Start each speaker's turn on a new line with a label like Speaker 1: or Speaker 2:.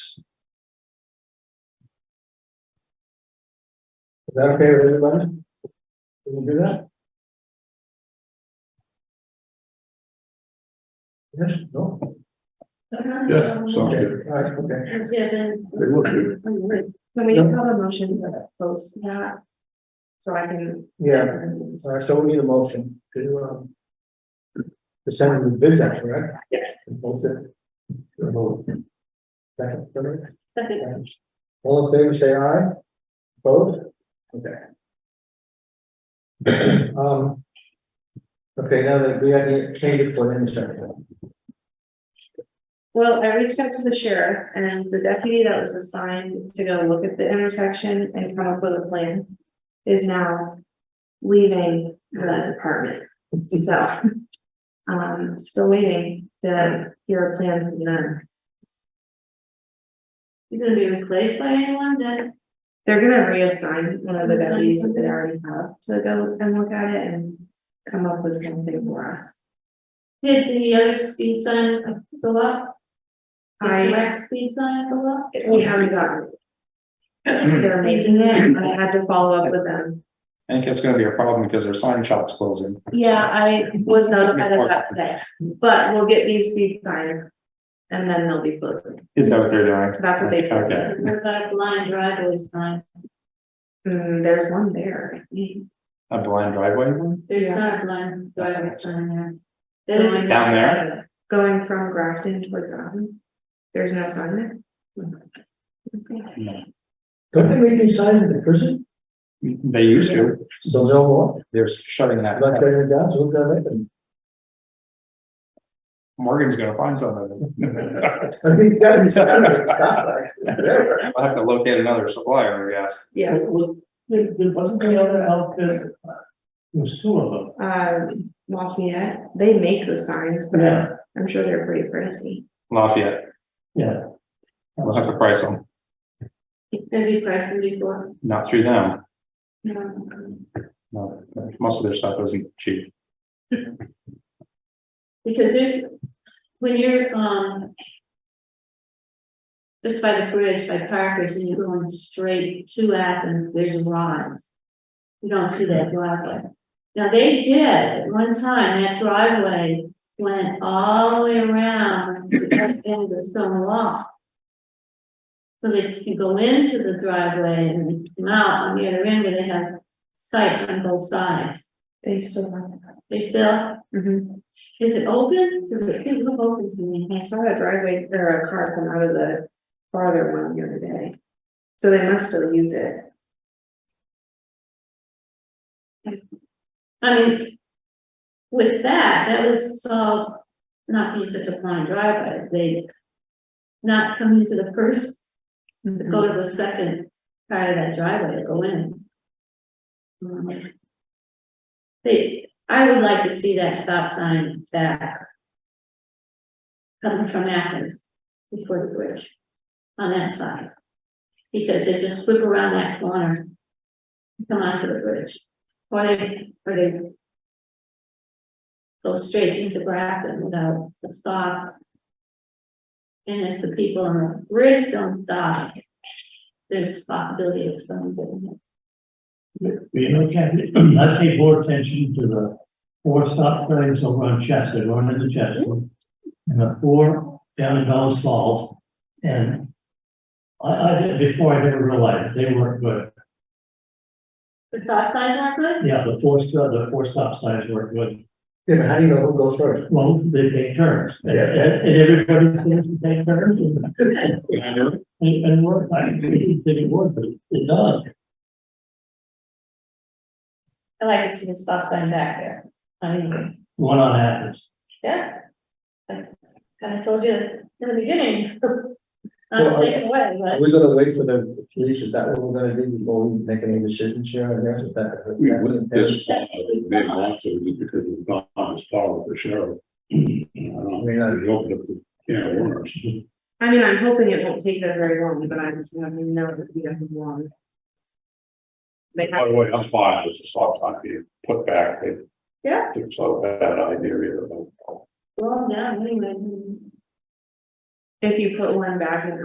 Speaker 1: that okay with everybody? Can we do that? Yes, no?
Speaker 2: Yeah, sounds
Speaker 1: Okay,
Speaker 2: good.
Speaker 1: all right, okay.
Speaker 3: Um, Yeah, then.
Speaker 2: They look good.
Speaker 3: Can we have a motion to post that? So I can.
Speaker 1: Yeah, all right, so we need a motion to, um, to send the bids out, right?
Speaker 3: Yeah.
Speaker 1: Both of them. Second, third.
Speaker 3: Second.
Speaker 1: All in favor, say aye. Both? Okay. Um. Okay, now that we have the change for the second.
Speaker 3: Well, I reached out to the sheriff and the deputy that was assigned to go look at the intersection and come up with a plan is now leaving the department, so. Um, still waiting to hear a plan from them.
Speaker 4: You're gonna be replaced by anyone that,
Speaker 3: They're gonna reassign one of the deputies that they already have to go and look at it and come up with something for us.
Speaker 4: did the other speed sign go up? The
Speaker 3: I-
Speaker 4: direct speed sign go up?
Speaker 3: We haven't gotten.
Speaker 5: Mm-hmm.
Speaker 3: it. They're making it, I had to follow up with them.
Speaker 5: I think it's gonna be a problem because their sign shop's closing.
Speaker 3: Yeah, I was notified of that today, but we'll get these speed signs. And then they'll be closing.
Speaker 5: Is that what they're doing?
Speaker 3: That's what they told me.
Speaker 5: Okay.
Speaker 4: What about a blind driveway sign?
Speaker 3: Hmm, there's one there.
Speaker 5: A blind driveway one?
Speaker 4: There's
Speaker 3: Yeah.
Speaker 4: not a blind driveway sign there. There is a-
Speaker 5: Down there?
Speaker 3: Going from Grafton towards Groton. There's no sign there.
Speaker 5: No.
Speaker 1: Don't they make these signs in the prison?
Speaker 5: They used to.
Speaker 1: So no more,
Speaker 5: They're shutting that.
Speaker 1: not
Speaker 5: down.
Speaker 1: turning it down, so who's gonna make them?
Speaker 5: Morgan's gonna find something.
Speaker 1: I mean, that is, that's.
Speaker 5: I'll have to locate another supplier, I guess.
Speaker 3: Yeah,
Speaker 6: There, there wasn't the other outfit, uh, there was two of them.
Speaker 3: uh, Lafayette, they make the signs, but I'm sure they're pretty pricey.
Speaker 5: Lafayette,
Speaker 6: Yeah.
Speaker 5: we'll have to price them,
Speaker 4: Have you priced them before?
Speaker 5: not through them.
Speaker 4: No.
Speaker 5: No, Most of their stuff isn't cheap.
Speaker 4: Because there's, when you're, um. Just by the bridge, by Parkers, and you're going straight to Athens, there's rods. You don't see that driveway. Now, they did, at one time, that driveway went all the way around the front end of the stone wall. So that you go into the driveway and then come out on the other end, where they have sight on both sides.
Speaker 3: They still have that.
Speaker 4: They still,
Speaker 3: Mhm.
Speaker 4: is it open? It didn't look open to me.
Speaker 3: I saw a driveway or a car come out of the farther one the other day. So they must still use it.
Speaker 4: I mean, with that, that would solve not being such a blind driveway, they not come into the first,
Speaker 3: Mm-hmm.
Speaker 4: go to the second part of that driveway to go in. Um, They, I would like to see that stop sign back coming from Athens before the bridge on that side. Because they just whip around that corner, and come onto the bridge. Or they, or they go straight into Grafton without a stop. And if the people on the bridge don't stop, there's possibility of someone getting hit.
Speaker 6: You know, Kathy, I pay more attention to the four stop signs over on Chester, going into Chester. And the four down in Dallas Falls, and I, I, did- before I never realized, they weren't good.
Speaker 4: The stop signs aren't good?
Speaker 6: Yeah, the four, st- the four stop signs weren't good.
Speaker 1: Yeah, but how do you know who goes first?
Speaker 6: Well, they take turns, and, and and everybody seems to take turns, and, and and work, I didn't think it worked, but it does.
Speaker 4: I like to see the stop sign back there. I mean,
Speaker 6: one on Athens.
Speaker 4: yeah. I kind of told you in the beginning.
Speaker 1: Well,
Speaker 4: I'm
Speaker 1: I-
Speaker 4: taking away,
Speaker 1: Are
Speaker 4: but
Speaker 1: we gonna wait for the police, is that what we're gonna do before we make any decisions here, I guess, is that?
Speaker 2: We went this, far, but they lost it just because it was not as far with the sheriff. I don't,
Speaker 1: We got it.
Speaker 2: we opened up the can of worms.
Speaker 3: I mean, I'm hoping it won't take them very long, but I just don't even know if it doesn't long. They
Speaker 2: By
Speaker 3: have,
Speaker 2: the way, I'm fine with the stop sign being put back. They
Speaker 3: Yeah.
Speaker 2: think It's not a bad idea either.
Speaker 4: well, yeah, anyway.
Speaker 3: if you put one back in